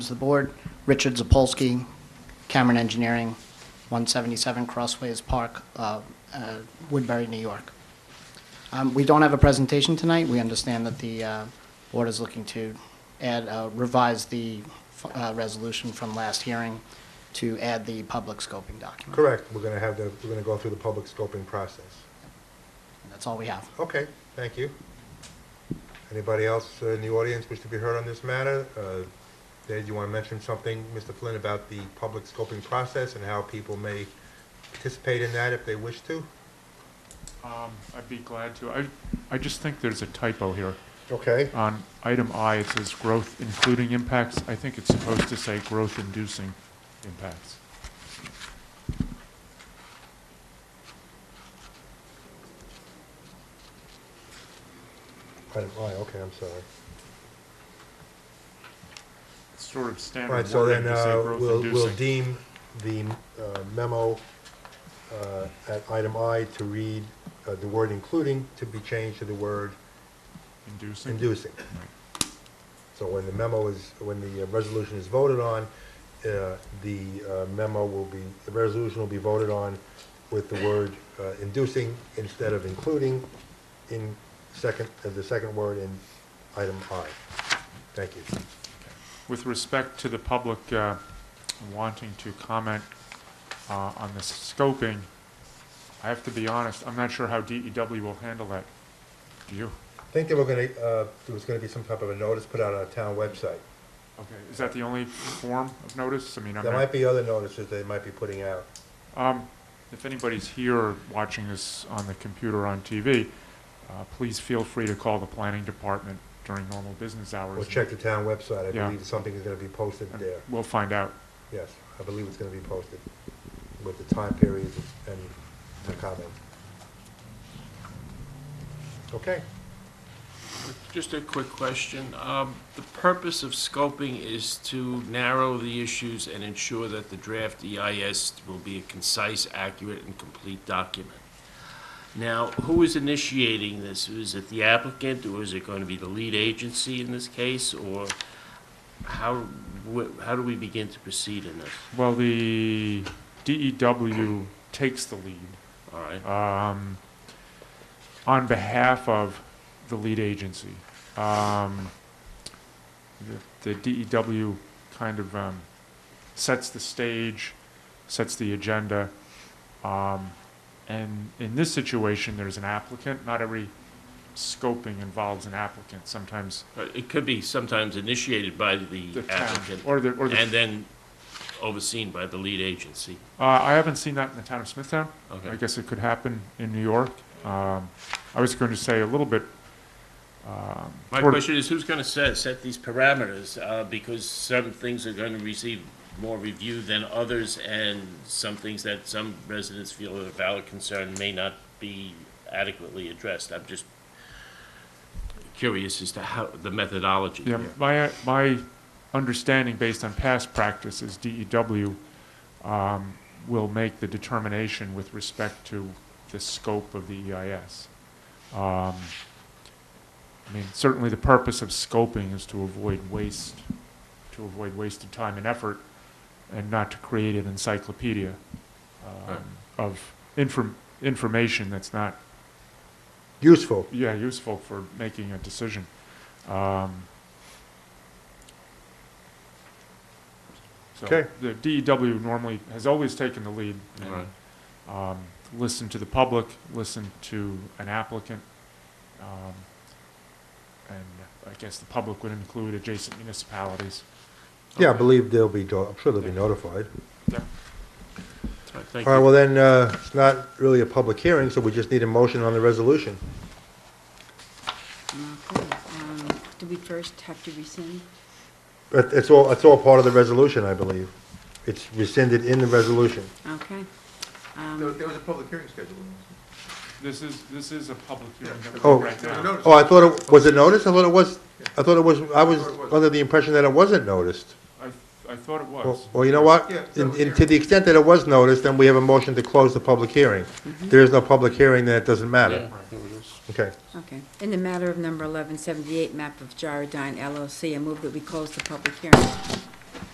Members of the board, Richard Zapolsky, Cameron Engineering, 177 Crossways Park, uh, uh, Woodbury, New York. Um, We don't have a presentation tonight. We understand that the uh, board is looking to add, uh, revise the uh, resolution from last hearing to add the public scoping document. Correct, we're going to have the, we're going to go through the public scoping process. That's all we have. Okay, thank you. Anybody else uh, in the audience wish to be heard on this matter? Uh, Dave, you want to mention something, Mr. Flynn, about the public scoping process and how people may participate in that if they wish to? Um, I'd be glad to. I, I just think there's a typo here. Okay. On item I, it says growth including impacts. I think it's supposed to say growth inducing impacts. Item I, oh, okay, I'm sorry. It's sort of All right, standard so wording then to say uh, growth we'll, we'll inducing. deem the uh, memo uh, at item I to read uh, the word including to be changed to the word Inducing? inducing. Right. So when the memo is, when the uh, resolution is voted on, uh, the uh, memo will be, the resolution will be voted on with the word uh, inducing instead of including in second, as the second word in item I. Thank you. With respect to the public uh, wanting to comment uh, on this scoping, I have to be honest, I'm not sure how DEW will handle that. Do you? I think they were gonna, uh, there was gonna be some type of a notice put out on a town website. Okay, is that the only form of notice? I mean, I'm There not... might be other notices they might be putting out. Um, If anybody's here watching this on the computer or on TV, uh, please feel free to call the planning department during normal business hours. We'll check the town website. I Yeah. believe something is gonna be posted and there. We'll find out. Yes, I believe it's gonna be posted with the time periods and the comment. Okay, Just a quick question. Um, The purpose of scoping is to narrow the issues and ensure that the draft EIS will be a concise, accurate, and complete document. Now, who is initiating this? Is it the applicant, or is it going to be the lead agency in this case? Or how, wh- how do we begin to proceed in this? Well, the DEW takes the lead All right, um, on behalf of the lead agency. Um, The the DEW kind of um, sets the stage, sets the agenda. Um, And in this situation, there's an applicant. Not every scoping involves an applicant. Sometimes Uh, It could be sometimes initiated by the the town applicant or the, or the, and then overseen by the lead agency. uh, I haven't seen that in the town of Smithtown. I Okay, guess it could happen in New York. Um, I was going to say a little bit. um, My toward- question is, who's going to set, set these parameters? Uh, Because some things are going to receive more review than others, and some things that some residents feel are a valid concern may not be adequately addressed. I'm just curious as to how, the methodology. Yeah, my, my understanding based on past practice is DEW um, will make the determination with respect to the scope of the EIS. Um, I mean, certainly the purpose of scoping is to avoid waste, to avoid wasted time and effort and not to create an encyclopedia um, Right. of inform, information that's not useful. yeah, useful for making a decision. Um, so Okay. The DEW normally has always taken the lead. and, Right. Um, listen to the public, listen to an applicant, um, and I guess the public would include adjacent municipalities. Yeah, I believe they'll be, do- I'm sure they'll be notified. All right, Thank All right, you. well then, uh, it's not really a public hearing, so we just need a motion on the resolution. Um, Do we first have to rescind? It- It's all, it's all part of the resolution, I believe. It's rescinded in the resolution. Okay. There Um, there was a public hearing scheduled. This is, this is a public hearing. that we're Oh. right There was now. a notice. Oh, I thought it, was it noticed? I thought it was, I thought it was, I was Or it wasn't. under the impression that it wasn't noticed. I, I thought it Well, was. well, you know what? Yeah, In- public in- To the extent that it was noticed, then we have a motion to close the public hearing. There is no public hearing, then it doesn't matter. Yeah, Mm-hmm. there it is. Okay. Okay. In the matter of number 1178, map of Gyrodyne LLC, I move that we close the public hearing.